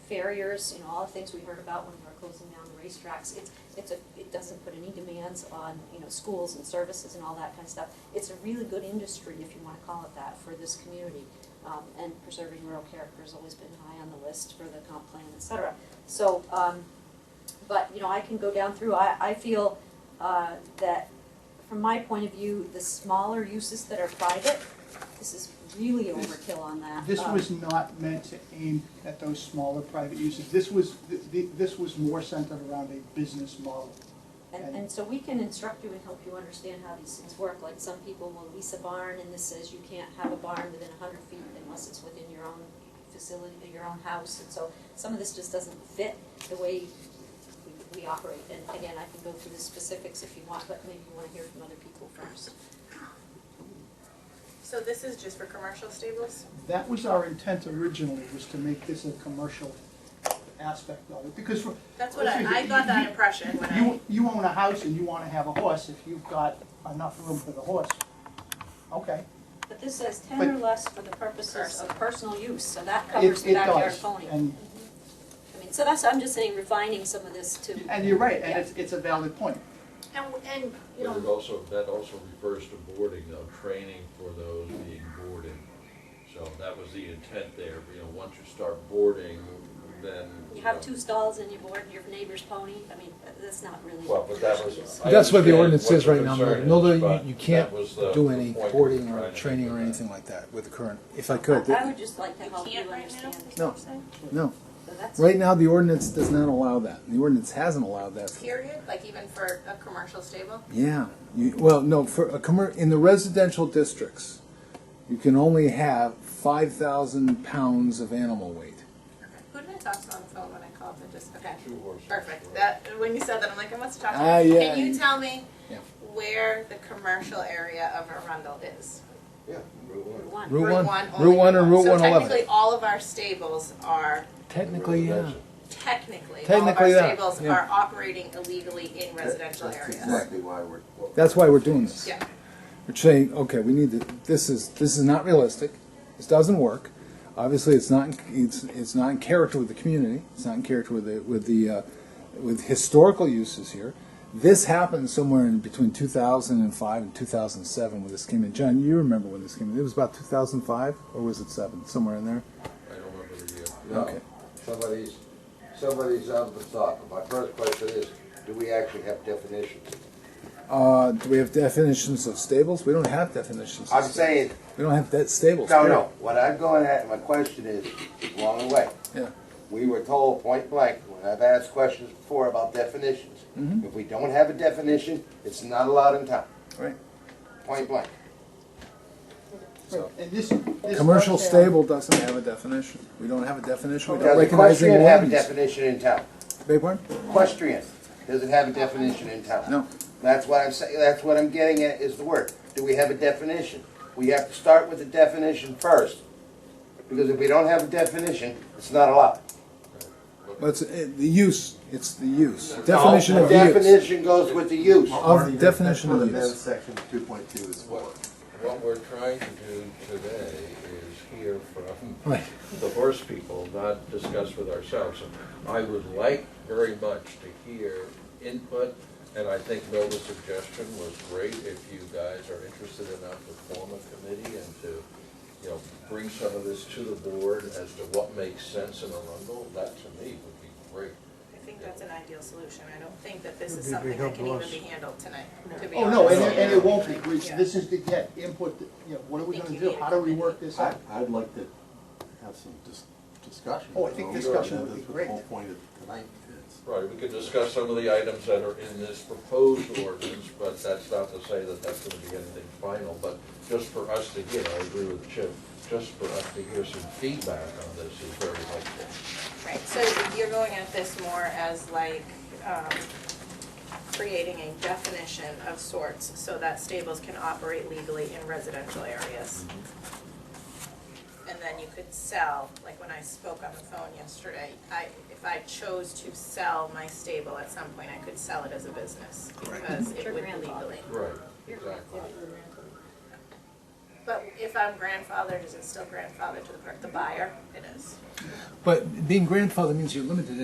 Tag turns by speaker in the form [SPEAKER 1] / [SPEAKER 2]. [SPEAKER 1] farriers, you know, all the things we heard about when we were closing down the racetracks. It's, it's a, it doesn't put any demands on, you know, schools and services and all that kind of stuff. It's a really good industry, if you wanna call it that, for this community. Um, and preserving rural character has always been high on the list for the comp plan, et cetera. So, um, but, you know, I can go down through, I, I feel, uh, that from my point of view, the smaller uses that are private, this is really overkill on that.
[SPEAKER 2] This
[SPEAKER 1] Um,
[SPEAKER 2] was not meant to aim at those smaller private uses. This was, th- th- this was more centered around a business model.
[SPEAKER 1] And, and so we can instruct you and help you understand how these things work, like some people will lease a barn and this says you can't have a barn within a hundred feet unless it's within your own facility, your own house, and so some of this just doesn't fit the way we, we operate, and again, I can go through the specifics if you want, but maybe you wanna hear from other people first.
[SPEAKER 3] So this is just for commercial stables?
[SPEAKER 2] That was our intent originally, was to make this a commercial aspect of it, because for,
[SPEAKER 3] That's what I, I got that impression when I,
[SPEAKER 2] you, you own a house and you wanna have a horse, if you've got enough room for the horse, okay.
[SPEAKER 1] But this says ten or
[SPEAKER 2] But-
[SPEAKER 1] less for the purposes of personal use, so that
[SPEAKER 2] It-
[SPEAKER 1] covers the
[SPEAKER 2] it
[SPEAKER 1] backyard
[SPEAKER 2] does,
[SPEAKER 1] pony.
[SPEAKER 2] And,
[SPEAKER 1] I mean, so that's, I'm just saying refining some of this to,
[SPEAKER 2] and you're right, and it's, it's a valid point.
[SPEAKER 3] and, and, you
[SPEAKER 4] But it
[SPEAKER 3] know,
[SPEAKER 4] also, that also refers to boarding, though, training for those being boarded. So that was the intent there, you know, once you start boarding, then. uh,
[SPEAKER 1] you have
[SPEAKER 4] know,
[SPEAKER 1] two stalls and you board your neighbor's pony, I mean, that's not really.
[SPEAKER 4] Well, but that was. I
[SPEAKER 5] That's what the
[SPEAKER 4] understand
[SPEAKER 5] ordinance
[SPEAKER 4] what
[SPEAKER 5] says
[SPEAKER 4] the
[SPEAKER 5] right now,
[SPEAKER 4] concern
[SPEAKER 5] Mary.
[SPEAKER 4] is,
[SPEAKER 5] No, no,
[SPEAKER 4] but
[SPEAKER 5] you, you can't
[SPEAKER 4] that was the-
[SPEAKER 5] do
[SPEAKER 4] the
[SPEAKER 5] any
[SPEAKER 4] point we were
[SPEAKER 5] boarding
[SPEAKER 4] trying
[SPEAKER 5] or
[SPEAKER 4] to
[SPEAKER 5] training
[SPEAKER 4] do
[SPEAKER 5] or
[SPEAKER 4] with that.
[SPEAKER 5] anything like that with the current, if I could.
[SPEAKER 1] I would just like to
[SPEAKER 3] you
[SPEAKER 1] help you
[SPEAKER 3] can't right now?
[SPEAKER 1] understand.
[SPEAKER 3] is
[SPEAKER 5] No.
[SPEAKER 3] what you're saying?
[SPEAKER 5] No,
[SPEAKER 1] So that's-
[SPEAKER 5] right now, the ordinance does not allow that. The ordinance hasn't allowed that. for-
[SPEAKER 3] Period, like even for a commercial stable?
[SPEAKER 5] Yeah, you, well, no, for a commer, in the residential districts, you can only have five thousand pounds of animal weight.
[SPEAKER 3] Who did I talk to on the phone when I called and just, okay,
[SPEAKER 4] Two horses.
[SPEAKER 3] perfect. That, when you said that, I'm like, I must have talked to
[SPEAKER 5] Ah,
[SPEAKER 3] you.
[SPEAKER 5] yeah.
[SPEAKER 3] Can you tell me
[SPEAKER 5] Yeah.
[SPEAKER 3] where the commercial area of Arundel is?
[SPEAKER 4] Yeah. Route one.
[SPEAKER 1] Route one.
[SPEAKER 5] Route one,
[SPEAKER 3] only
[SPEAKER 5] Route one and Route one
[SPEAKER 3] So
[SPEAKER 5] eleven.
[SPEAKER 3] technically, all of our stables are,
[SPEAKER 5] Technically, yeah.
[SPEAKER 4] Residential.
[SPEAKER 3] technically, all of our
[SPEAKER 5] Technically that,
[SPEAKER 3] stables
[SPEAKER 5] yeah.
[SPEAKER 3] are operating illegally in residential areas.
[SPEAKER 5] Exactly why we're. That's why we're doing this.
[SPEAKER 3] Yeah.
[SPEAKER 5] We're saying, okay, we need to, this is, this is not realistic, this doesn't work. Obviously, it's not, in- it's, it's not in character with the community, it's not in character with the, with the, uh, with historical uses here. This happened somewhere in between two thousand and five and two thousand and seven when this came in. John, you remember when this came in, it was about two thousand and five, or was it seven, somewhere in there?
[SPEAKER 4] I don't remember the uh, year.
[SPEAKER 5] Okay.
[SPEAKER 6] No, somebody's, somebody's out of the thought. My first question is, do we actually have definitions?
[SPEAKER 5] Uh, do we have definitions of stables? We don't have definitions. of
[SPEAKER 6] I'm
[SPEAKER 5] stables.
[SPEAKER 6] saying,
[SPEAKER 5] We don't have that stables.
[SPEAKER 6] no,
[SPEAKER 5] period.
[SPEAKER 6] no, what I'm going at, my question is, along the way.
[SPEAKER 5] Yeah.
[SPEAKER 6] We were told point blank, when I've asked questions before about definitions.
[SPEAKER 5] Mm-hmm.
[SPEAKER 6] If we don't have a definition, it's not allowed in town,
[SPEAKER 5] Right.
[SPEAKER 6] point blank.
[SPEAKER 5] So-
[SPEAKER 2] And this, this.
[SPEAKER 5] Commercial
[SPEAKER 2] does have-
[SPEAKER 5] stable doesn't have a definition. We don't have a definition. We don't
[SPEAKER 6] Does
[SPEAKER 5] recognize any
[SPEAKER 6] equestrian have a
[SPEAKER 5] ordinance.
[SPEAKER 6] definition in town?
[SPEAKER 5] Beg pardon?
[SPEAKER 6] Equestrian, does it have a definition in town?
[SPEAKER 5] No.
[SPEAKER 6] That's what I'm saying, that's what I'm getting at, is the word. Do we have a definition? We have to start with the definition first, because if we don't have a definition, it's not allowed.
[SPEAKER 5] But it's, uh, the use, it's the use. Definition of use.
[SPEAKER 6] Definition goes with the use.
[SPEAKER 5] Of definition of use.
[SPEAKER 7] section two point two is
[SPEAKER 4] What, what we're trying to do today is hear from
[SPEAKER 5] Right.
[SPEAKER 4] the horse people, not discuss with ourselves. And I would like very much to hear input, and I think Nova's suggestion was great, if you guys are interested enough to form a committee and to, you know, bring some of this to the board as to what makes sense in Arundel, that to me would be great.
[SPEAKER 3] I think that's an ideal solution. I don't think that this is something that can even be handled tonight, to be
[SPEAKER 2] Oh, no, and,
[SPEAKER 3] honest.
[SPEAKER 2] it- and it won't be, We-
[SPEAKER 3] Yeah.
[SPEAKER 2] this is to get input, you know, what are we
[SPEAKER 3] Think
[SPEAKER 2] gonna
[SPEAKER 3] you
[SPEAKER 2] do,
[SPEAKER 3] need a
[SPEAKER 2] how do we work this
[SPEAKER 7] I,
[SPEAKER 2] out?
[SPEAKER 7] I'd like to have some dis- discussion.
[SPEAKER 2] Oh, I think discussion would be great.
[SPEAKER 7] That's what the whole point of tonight is.
[SPEAKER 4] Right, we could discuss some of the items that are in this proposed ordinance, but that's not to say that that's gonna be anything final, but just for us to hear, I agree with Chip, just for us to hear some feedback on this is very helpful.
[SPEAKER 3] Right, so you're going at this more as like, um, creating a definition of sorts so that stables can operate legally in residential areas. And then you could sell, like when I spoke on the phone yesterday, I, if I chose to sell my stable at some point, I could sell it as a business because
[SPEAKER 1] Your
[SPEAKER 3] it would
[SPEAKER 1] grandfather.
[SPEAKER 3] legally.
[SPEAKER 4] Right,
[SPEAKER 1] Your
[SPEAKER 4] exactly.
[SPEAKER 1] grandfather.
[SPEAKER 3] But if I'm grandfathered, is it still grandfathered to the per- the buyer? It is.
[SPEAKER 5] But being grandfather means you're limited